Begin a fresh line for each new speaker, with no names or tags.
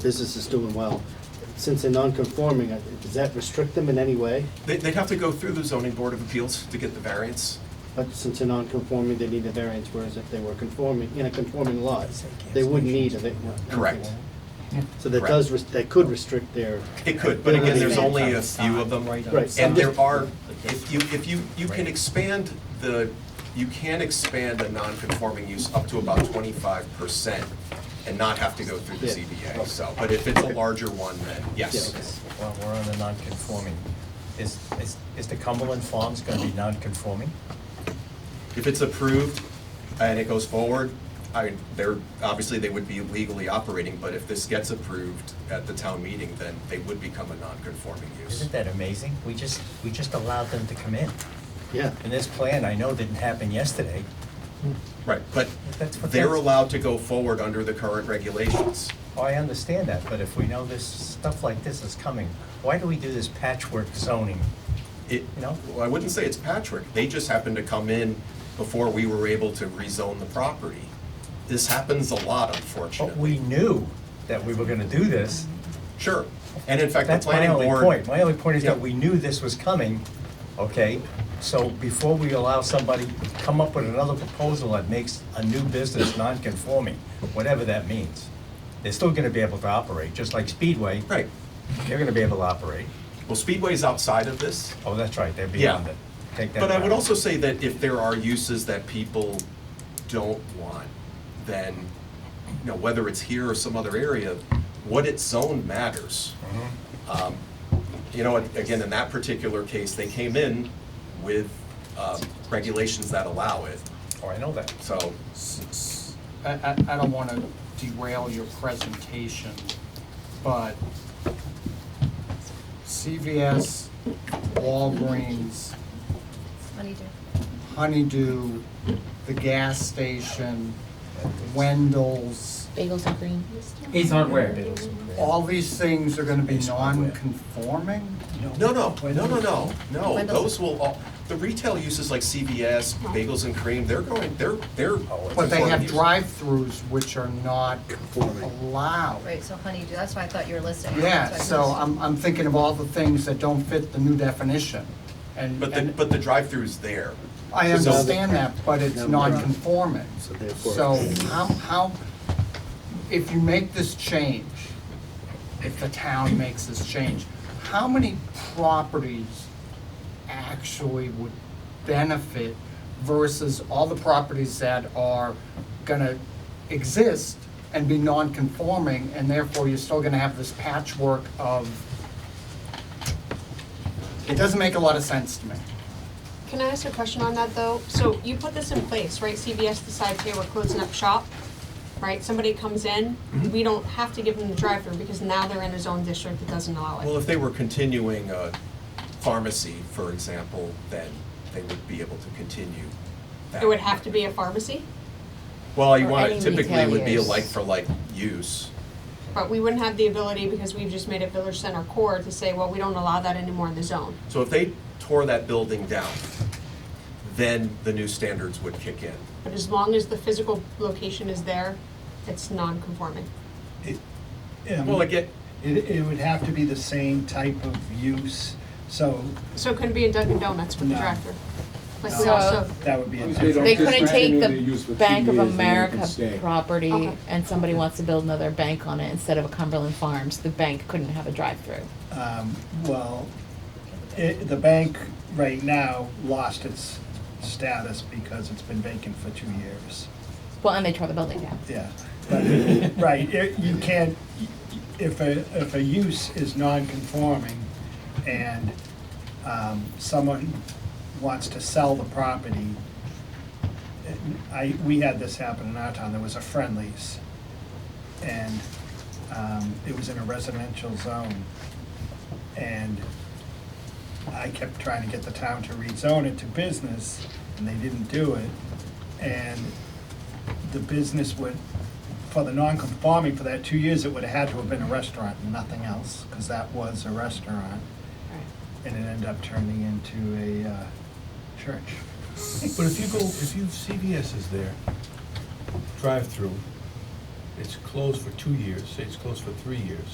business is doing well. Since they're non-conforming, uh, does that restrict them in any way?
They- They'd have to go through the zoning board of appeals to get the variance.
But since they're non-conforming, they need a variance, whereas if they were conforming, in a conforming lot, they wouldn't need a va-
Correct.
So that
Correct.
does, res- that could restrict their,
It could, but again, there's only a few of them.
Right.
Right.
And there are, if you, if you, you can expand the, you can expand a non-conforming use up to about twenty-five percent and not have to go through the
Yeah.
ZBA, so, but if it's a larger one, then yes.
Yes.
Well, we're on the non-conforming. Is, is, is the Cumberland Farms gonna be non-conforming?
If it's approved and it goes forward, I, they're, obviously, they would be legally operating, but if this gets approved at the town meeting, then they would become a non-conforming use.
Isn't that amazing? We just, we just allowed them to come in.
yeah.
And this plan, I know, didn't happen yesterday.
Right, but
That's what
they're
that's-
allowed to go forward under the current regulations.
Oh, I understand that, but if we know this, stuff like this is coming, why do we do this patchwork zoning?
It,
You know?
well, I wouldn't say it's patchwork, they just happened to come in before we were able to rezone the property. This happens a lot,
But we
unfortunately.
knew that we were gonna do this.
Sure, and in fact, the
That's my
planning
only point.
board,
My only point is that
Yeah.
we knew this was coming, okay? So before we allow somebody to come up with another proposal that makes a new business non-conforming, whatever that means, they're still gonna be able to operate, just like Speedway.
right,
They're gonna be able to operate.
well, Speedway's outside of this.
Oh, that's right, they're beyond it. Take that
But I
back.
would also say that if there are uses that people don't want, then, you know, whether it's here or some other area, what it's zoned matters. Um, You know, and again, in that particular case, they came in with um, regulations that allow it,
Oh, I know that.
so,
I, I, I don't want to derail your presentation, but CVS, Walgreens,
Honeydew.
Honeydew, the gas station, Wendell's,
Bagels and cream.
Ace Hardware.
all these things are going to be non-conforming?
no, no, no, no, no, no.
Wendell's.
Those will all, the retail uses like CVS, Bagels and Cream, they're going, they're, they're.
Uh-huh. But they
conforming
have
uses.
drive-throughs which are not allowed.
Right, so honeydew, that's why I thought you were listing.
Yeah,
That's
so
why I
I'm, I'm thinking of all the things that don't fit the new definition. And,
But the,
and
but the drive-through is there.
I
So-
understand that, but it's
No.
non-conforming.
So therefore-
So how, how, if you make this change, if the town makes this change, how many properties actually would benefit versus all the properties that are gonna exist and be non-conforming, and therefore you're still gonna have this patchwork of, it doesn't make a lot of sense to me.
Can I ask a question on that, though? So you put this in place, right? CVS decides, hey, we're closing up shop, right? Somebody comes in,
Mm-hmm.
we don't have to give them the drive-through because now they're in a zone district that doesn't allow
Well,
it.
if they were continuing a pharmacy, for example, then they would be able to continue that.
It would have to be a pharmacy,
Well, you
Or
want,
any
typically it would be a
retailers.
like-for-like use.
but we wouldn't have the ability because we've just made it Village Center Core to say, well, we don't allow that anymore in the zone.
So if they tore that building down, then the new standards would kick in.
But as long as the physical location is there, it's non-conforming.
Yeah,
Well, again,
It, it would have to be the same type of use, so
So it couldn't be a Dunkin' Donuts with the
No.
drive-through. Like we
So-
also,
that would be a
They don't
They
different.
couldn't take
discontinue their use for
the
two
Bank of
years and then they can
America
stay.
property
Okay.
and somebody wants to build another bank on it instead of a Cumberland Farms, the bank couldn't have a drive-through.
Um, well, it, the bank right now lost its status because it's been vacant for two years.
Well, and they tore the building down.
Yeah, but, right, it- you can't, if a, if a use is non-conforming and um, someone wants to sell the property, uh, I, we had this happen in our town, there was a friendlies, and um, it was in a residential zone. And I kept trying to get the town to rezone it to business, and they didn't do it. And the business would, for the non-conforming, for that two years, it would have had to have been a restaurant and nothing else, because that was a restaurant, and it ended up turning into a uh, church.
But if you go, if you, CVS is there, drive-through,
it's closed for two years, say it's closed for three years,